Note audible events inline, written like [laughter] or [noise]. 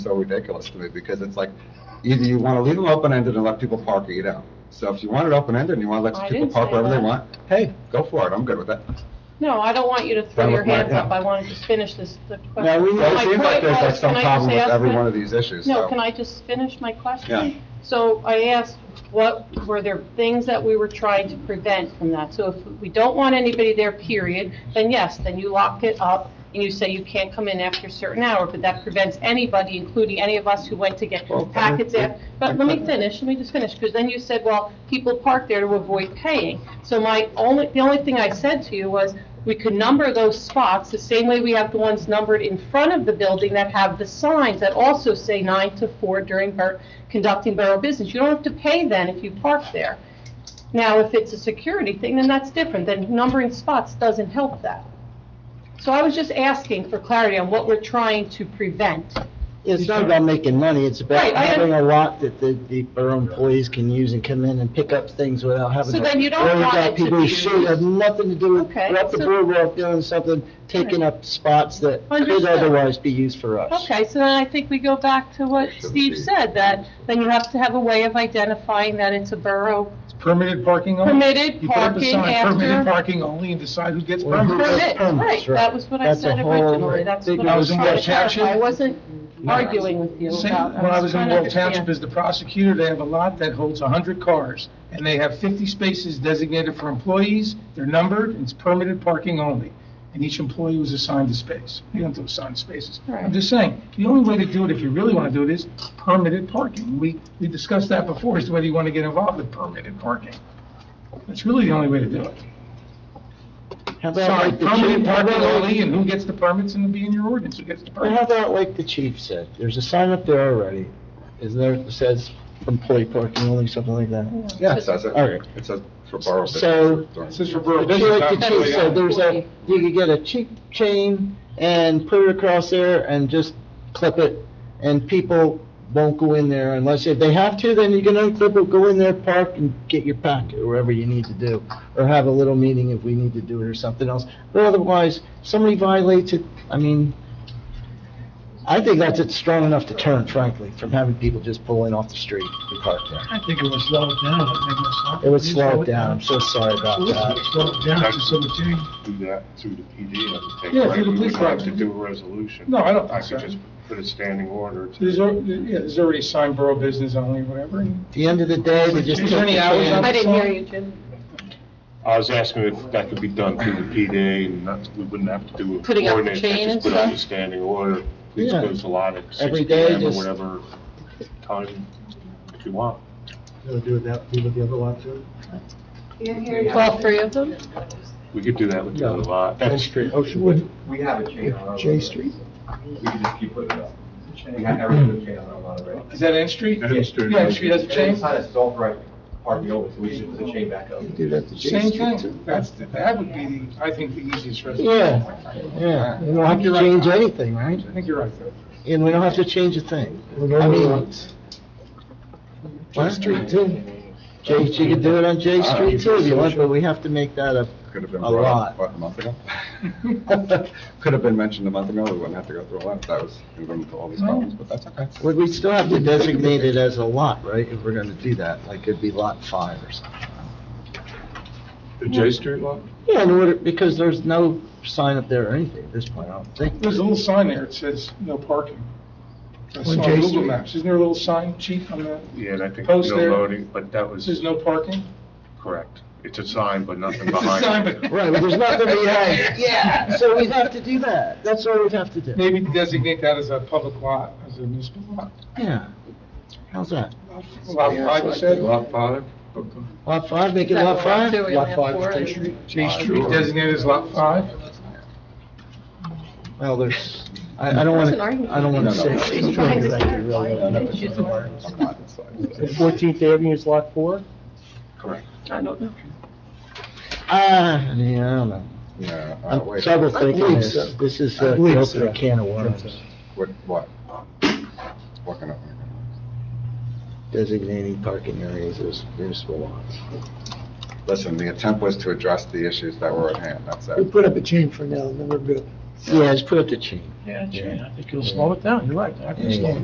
so ridiculous to me because it's like, either you want to leave them open-ended and let people park or you don't. So if you want it open-ended and you want to I let people didn't park say wherever they that. want, hey, go for it, I'm good with that. No, I don't want you to throw That was your my- hands up. yeah. I wanted to finish this, the question. Now, we, My it seems like point there's like was, some can I problem just with ask every my- one of these issues, No, so- can I just finish my question? Yeah. So I asked, what, were there things that we were trying to prevent from that? So if we don't want anybody there, period, then yes, then you lock it up and you say you can't come in after a certain hour, but that prevents anybody, including any of us who went to get Well, I- packets in. But let me I- finish, let me just finish, because then you said, well, people park there to avoid paying. So my only, the only thing I said to you was, we could number those spots the same way we have the ones numbered in front of the building that have the signs that also say nine to four during bor- conducting borough business. You don't have to pay then if you park there. Now, if it's a security thing, then that's different, then numbering spots doesn't help that. So I was just asking for clarity on what we're trying to prevent. It's not about making money, it's about Right, I having a lot that the, the borough employees can use and come in and pick up things without having So to. then you don't worry want about it to people be who should have nothing to do with, Okay, they're up the so- boardwalk doing something, taking up spots that could Understood. otherwise be used for us. Okay, so then I think we go back to what Steve said, that then you have to have a way of identifying that it's a borough Permitted parking only? Permitted You put up a parking sign, Permitted after- parking only and decide who gets Or who permit. gets permit. Right, permits, that was what I That's a said whole originally, that's big what I was When trying I was to in Walt clarify. I Township- wasn't arguing with you Same- about. When I was in trying to World Township understand. as the prosecutor, they have a lot that holds 100 cars, and they have 50 spaces designated for employees, they're numbered, and it's permitted parking only, and each employee was assigned a space. You don't have to assign spaces. Right. I'm just saying, the only way to do it, if you really want to do it, is permitted parking. We, we discussed that before, is whether you want to get involved with permitted parking. That's really the only way to do it. How about Sorry, like the permanent chief- how parking about like- only, and who gets the permits and be in your ordinance, who gets the But how permits? about like the chief said, there's a sign up there already, isn't there, that says employee parking only, something like that? Yeah, it says it. All right. It says for borough business. So- This is uh, for borough Just like business, the not chief employee said, only. there's a, you could get a cheap chain and put it across there and just clip it, and people won't go in there unless, if they have to, then you can unclip it, go in there, park, and get your packet, or whatever you need to do, or have a little meeting if we need to do it or something else. But otherwise, somebody violates it, I mean, I think that's it strong enough to turn, frankly, from having people just pulling off the street and park there. I think it would slow it down. I think It would slow it down, I'm so sorry about that. Slow it down to some degree. do that through the PD and take. Yeah, through the We police wouldn't have to department. do a resolution. No, I don't think I so. could just put a standing order to. There's, al- yeah, there's already signed borough business only, whatever. and- At the end of the day, they just. Is there any hours on I didn't hear you, Jim. I was asking if that could be done through the PD and not, we wouldn't have to do. an Putting up the ordinance, chain and Just put out a stuff? standing order, please Yeah. close the lot at six Every P day, M or just- whatever time if you want. Do that, do the other lot too? All three of them? We could do that with the other lot. That's Street, Oceanwood. We have a chain on our. Oh, J road. Street? We can just keep putting it up. We have every good chain on our lot already. Is that N Street? N Street. Yeah, N Street has a And then chain. the sign is authorized parking over, so we should put the chain back up. Do that to J Same Street too. thing. That's, the- that would be, the I think, the easiest resolution. Yeah, yeah, you don't have to You're right. change anything, right? I think you're right, though. And we don't have to change a thing. I mean. J Street too. J, you can do it on J Street too if Ah, you want, but we have to make that a, Could have been A brought lot. up, what, a month ago? [laughs] Could have been mentioned a month ago, we wouldn't have to go through a lot, if that was, we wouldn't have all these problems, but that's okay. we- we still have to designate it as a lot, right? If we're gonna do that, like it'd be lot five or something. Oh, the J Street lot? Yeah, in order, because there's no sign up there or anything at this point, I don't think. There's a little sign there, it says no parking. I saw On on J Google Street. Maps, isn't there a little sign, chief, on that? Yeah, and I think no Post there. loading, but that It was says no parking? correct. It's a sign, but nothing It's a behind it. sign, but. Right, but there's nothing behind it. [laughs] Yeah. So we'd have to do that. That's what we'd have to do. Maybe designate that as a public lot, as a municipal lot. Yeah. How's that? Lot five, you said? Lot five? Lot five, make it Is that lot what five? we're doing? Lot We five, have four State and- Street. J Street designated as lot five? Well, there's, I, I That's don't want an to, argument. I don't want No, to no, say. it's- State Street, Behind the 'cause I could really sign. end up She's with the some one. words. I'm not, it's fine. Fourteenth Avenue is lot four? Correct. I don't know. Ah, yeah, I don't know. Yeah, uh, I'm wait, trouble thinking believe this. so. This is I uh, believe open a so. can of worms, what, what? What can I? designating parking areas as municipal lots. Listen, the attempt was to address the issues that were at hand, that's We it. put up a chain for now, and then we're good. Yeah, just put up the chain. Yeah, chain. I think it'll slow it down. You're right. I think it'll slow it